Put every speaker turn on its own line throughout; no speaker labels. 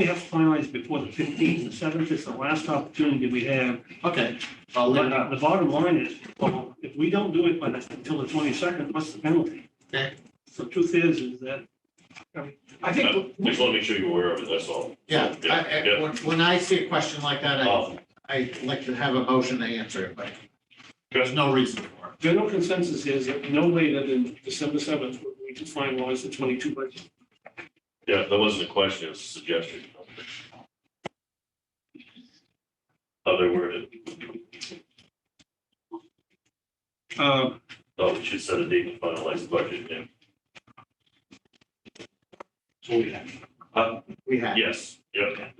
we have finalized before the fifteenth and seventh, it's the last opportunity we have.
Okay, uh, I'll leave it
But
up.
The bottom line is, well, if we don't do it by the, until the twenty-second, what's the penalty?
Okay.
So truth is, is that, I mean, I think,
Just want to make sure you're aware of it, that's all.
Yeah, I, I,
Yeah.
when, when I see a question like that, I,
Um,
I like to have a motion to answer it, but there's
Chris,
no reason for it.
general consensus is that no later than December seventh, we can finalize the twenty-two budget.
yeah, that wasn't a question, it was a suggestion. Other worded,
Uh,
oh, we should set a date to finalize the budget, yeah. Uh,
We have.
yes, yeah,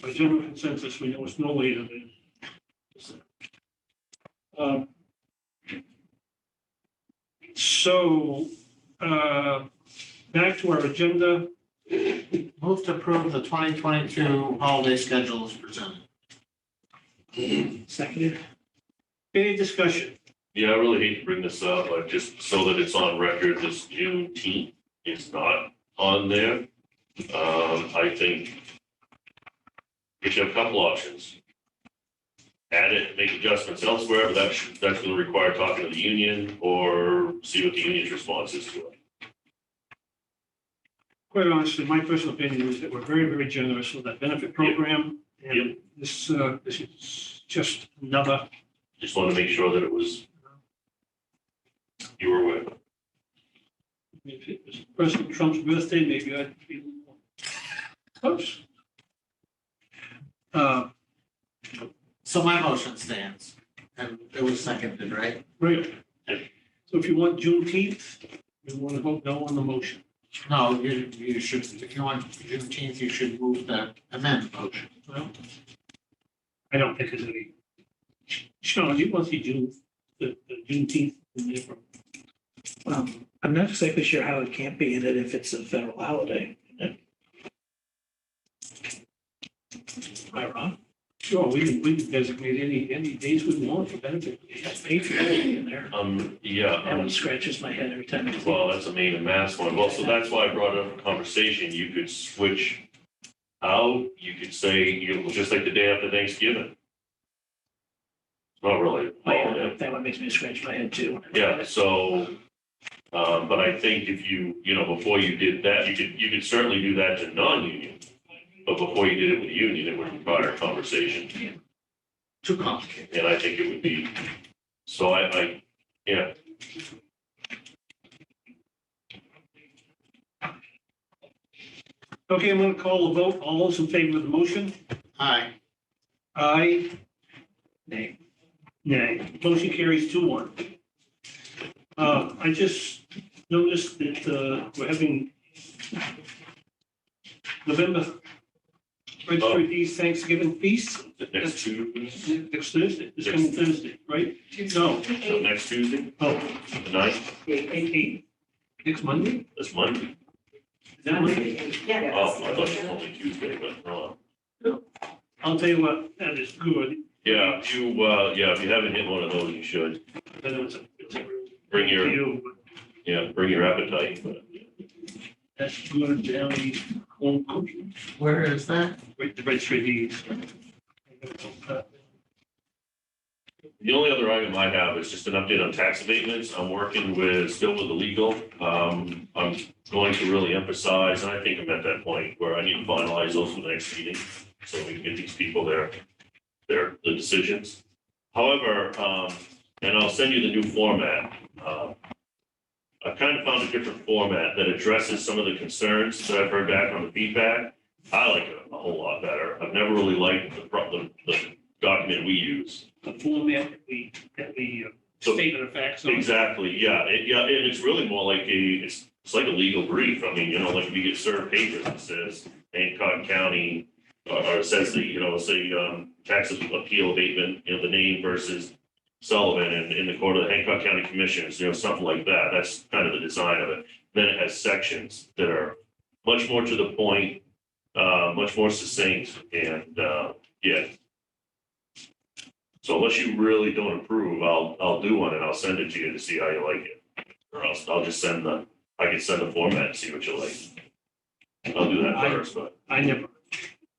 by general consensus, we know it's no later than. Um, So, uh, back to our agenda,
Move to approve the twenty twenty-two holiday schedule as presented.
seconded. Any discussion?
yeah, I really hate to bring this up, but just so that it's on record, this Juneteenth is not on there. Um, I think we should have a couple options. Add it, make adjustments elsewhere, but that's, that's gonna require talking to the union or see what the union's response is to it.
Quite honestly, my personal opinion is that we're very, very generous with that benefit program. And this, uh, this is just another,
Just wanted to make sure that it was. You were aware.
if it was President Trump's birthday, maybe I'd be a little more close. Uh,
So my motion stands, and it was seconded, right?
Right. So if you want Juneteenth, you want to vote no on the motion.
No, you, you should, if you want Juneteenth, you should move the amend motion.
Well, I don't think there's any. Sean, you want to see June, the the Juneteenth in there? from-
Um, I'm not exactly sure how it can't be in it if it's a federal holiday. Am I wrong?
Sure, we can, we can designate any, any days we want for benefit.
It's Patriot Day in there.
Um, yeah,
That one
um,
scratches my head every time. I think
well, that's a main and mass one. Well, so that's why I brought up a conversation. You could switch out, you could say, you know, just like the day after Thanksgiving. It's Not really. a
about
holiday.
it. That one makes me scratch my head too.
Yeah, so, um, but I think if you, you know, before you did that, you could, you could certainly do that to non-union. But before you did it with union, it would require a conversation.
Too complicated.
And I think it would be, so I, I, yeah.
Okay, I'm going to call a vote. All those in favor of the motion?
Aye.
Aye.
Nay.
Nay. Motion carries two one. Uh, I just noticed that, uh, we're having November Registry Feast Thanksgiving Feast
Next Tuesday,
next Thursday, this coming Thursday, right? No,
so next Tuesday,
oh,
the ninth,
wait, eight, eight, next Monday?
that's Monday.
Is that Monday?
Oh, I thought you told me Tuesday, but, uh, no.
I'll tell you what, that is good.
yeah, if you, uh, yeah, if you haven't hit one of those, you should.
I know it's a, it's a real
Bring your,
deal, but
yeah, bring your appetite, but
That's good, Downey, home cooking.
Where is that?
Wait, the registry Uh, deeds.
The only other item I have is just an update on tax abatements. I'm working with, still with the legal. Um, I'm going to really emphasize, and I think I'm at that point where I need to finalize those for the next meeting. So we can get these people their, their, the decisions. However, um, and I'll send you the new format. um, I've kind of found a different format that addresses some of the concerns that I've heard back on the feedback. I like it a whole lot better. I've never really liked the, pro- the, the document we use.
The format that we, that we uh,
So-
statement of facts on.
Exactly, yeah, it, yeah, and it's really more like a, it's, it's like a legal brief, I mean, you know, like we get served papers that says Hancock County, or, or says the, you know, say, um, tax appeal abatement, you know, the name versus Sullivan and in the court of the Hancock County Commissioners, you know, something like that, that's kind of the design of it. Then it has sections that are much more to the point, uh, much more succinct, and, uh, yeah, so unless you really don't approve, I'll, I'll do one and I'll send it to you to see how you like it. Or else I'll just send the, I can send the format and see what you like. I'll do that first, but
I never